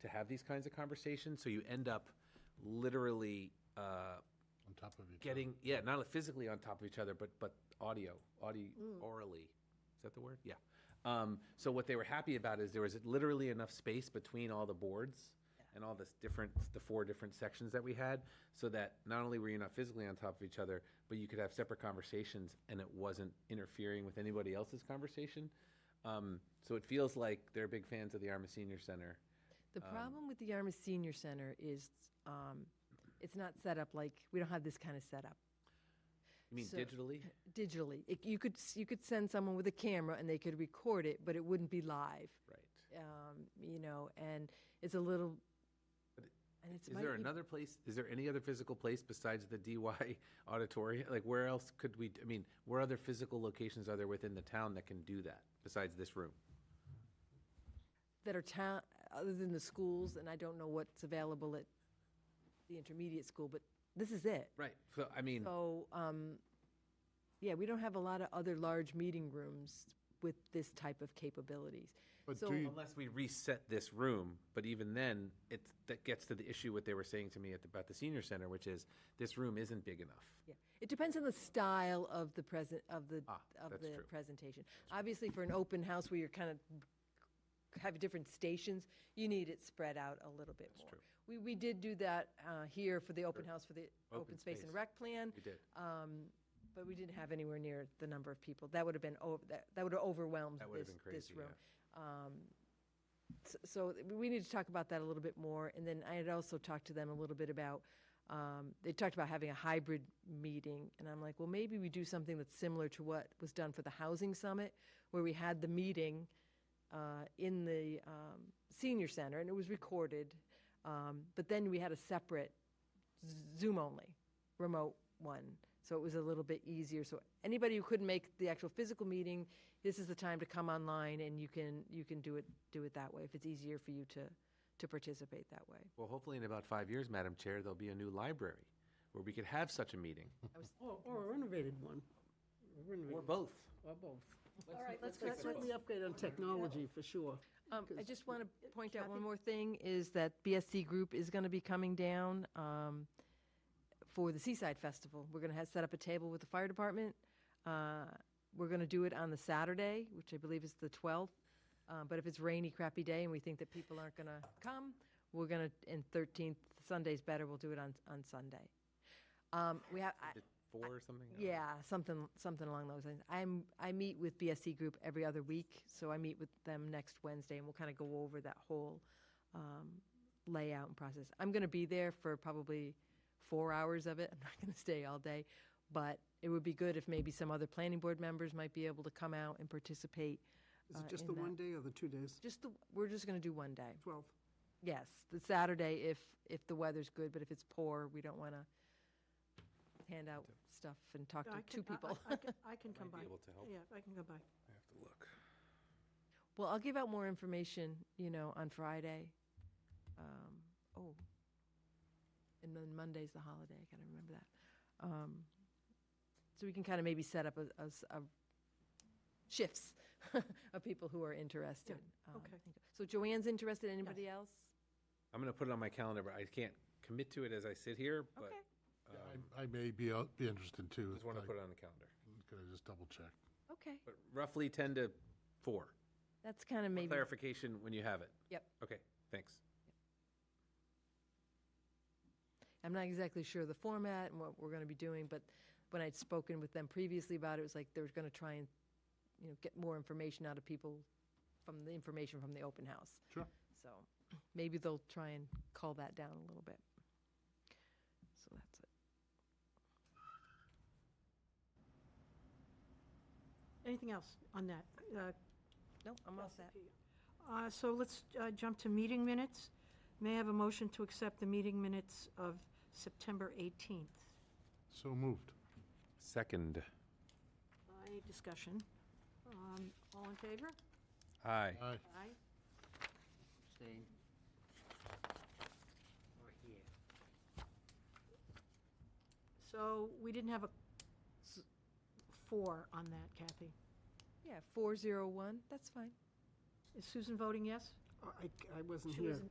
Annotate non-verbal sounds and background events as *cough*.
to have these kinds of conversations. So you end up literally uh, on top of each other. getting, yeah, not only physically on top of each other, but, but audio, audio, orally. Is that the word? Yeah. Um, so what they were happy about is there was literally enough space between all the boards and all this different, the four different sections that we had, so that not only were you not physically on top of each other, but you could have separate conversations and it wasn't interfering with anybody else's conversation. Um, so it feels like they're big fans of the Arma Senior Center. The Um, problem with the Yarmouth Senior Center is um, it's not set up like, we don't have this kind of setup You mean So- digitally? digitally. It- You could, s- you could send someone with a camera and they could record it, but it wouldn't be live, Right. um, you know, and it's a little, and it's. Is might there be- another place, is there any other physical place besides the DY *laughs* auditorium? Like, where else could we, I mean, where other physical locations are there within the town that can do that besides this room? That are town, other than the schools, and I don't know what's available at the intermediate school, but this is it. Right, so, I mean, So, um, yeah, we don't have a lot of other large meeting rooms with this type of capabilities. But So- do you, unless we reset this room, but even then, it's, that gets to the issue what they were saying to me at, the- about the senior center, which is, this room isn't big enough. Yeah, it depends on the style of the present, of the, Ah, of that's the true. presentation. Obviously, for an open house where you're kind of, have different stations, you need it spread out a little bit more. true. We, we did do that uh, here for the open house for the Open open space and space. rec plan, We did, but we didn't have anywhere near the number of people. That would have been, ov- that that would have overwhelmed That would have this, been this crazy, room. Um, s- So th- we need to talk about that a little bit more. And then I had also talked to them a little bit about, um, they talked about having a hybrid meeting. And I'm like, well, maybe we do something that's similar to what was done for the housing summit, where we had the meeting uh, in the um, senior center and it was recorded. Um, But then we had a separate Zoom only, remote one. So it was a little bit easier. So anybody who couldn't make the actual physical meeting, this is the time to come online and you can, you can do it, do it that way if it's easier for you to, to participate that way. well, hopefully in about five years, Madam Chair, there'll be a new library where we could have such a meeting, Or, or a renovated one. A or Renovated, both. or both. All right, let's, That's certainly upgrade on technology, for sure. Um, I just want to point out one more thing, is that BSC Group is going to be coming down um, for the Seaside Festival. We're going to have, set up a table with the fire department. Uh, We're going to do it on the Saturday, which I believe is the 12th. Uh, But if it's rainy, crappy day, and we think that people aren't going to come, we're going to, and 13th, Sunday's better, we'll do it on, on Sunday. Um, We have, I- Four or something? I don't know. yeah, something, something along those lines. I'm, I meet with BSC Group every other week, so I meet with them next Wednesday, and we'll kind of go over that whole um, layout and process. I'm going to be there for probably four hours of it. *laughs* I'm not going to stay all day, but it would be good if maybe some other planning board members might be able to come out and participate. Is uh, it just in the that. one day or the two days? Just the, we're just going to do one day. Twelve. Yes, the Saturday if, if the weather's good, but if it's poor, we don't want to hand out stuff and talk I to two can- I- I- people. I can- I *laughs* can come Might by. be able to help. Yeah, I can come by. I have to look. Well, I'll give out more information, you know, on Friday. Um, oh, and then Monday's the holiday. I gotta remember that. Um, so we can kind of maybe set up a, a s- a shifts *laughs* of people who are interested. um, okay. So Joanne's interested. Anybody else? I'm gonna put it on my calendar, but I can't commit to it as I sit here, but um, Okay. Yeah, I I may be, out- be interested too. I just wanna I- put it on the calendar. Could I just double check? Okay, But roughly 10 to 4. that's kind of maybe. Clarification when you have it. Yep. Okay, thanks. I'm not exactly sure the format and what we're going to be doing, but when I'd spoken with them previously about it, it was like they were going to try and, you know, get more information out of people from the information from the open house. Sure. So maybe they'll try and call that down a little bit. So that's it. Anything else on that? Uh, No, I'm all set. uh, So let's uh, jump to meeting minutes. May I have a motion to accept the meeting minutes of September 18th? So moved. Second. Uh, Any discussion? Um, All in favor? Aye. Aye. Aye. Abstain. Or here. So we didn't have a s- four on that, Kathy. Yeah, 401, that's fine. Is Susan voting yes? I, I- I wasn't She here. wasn't-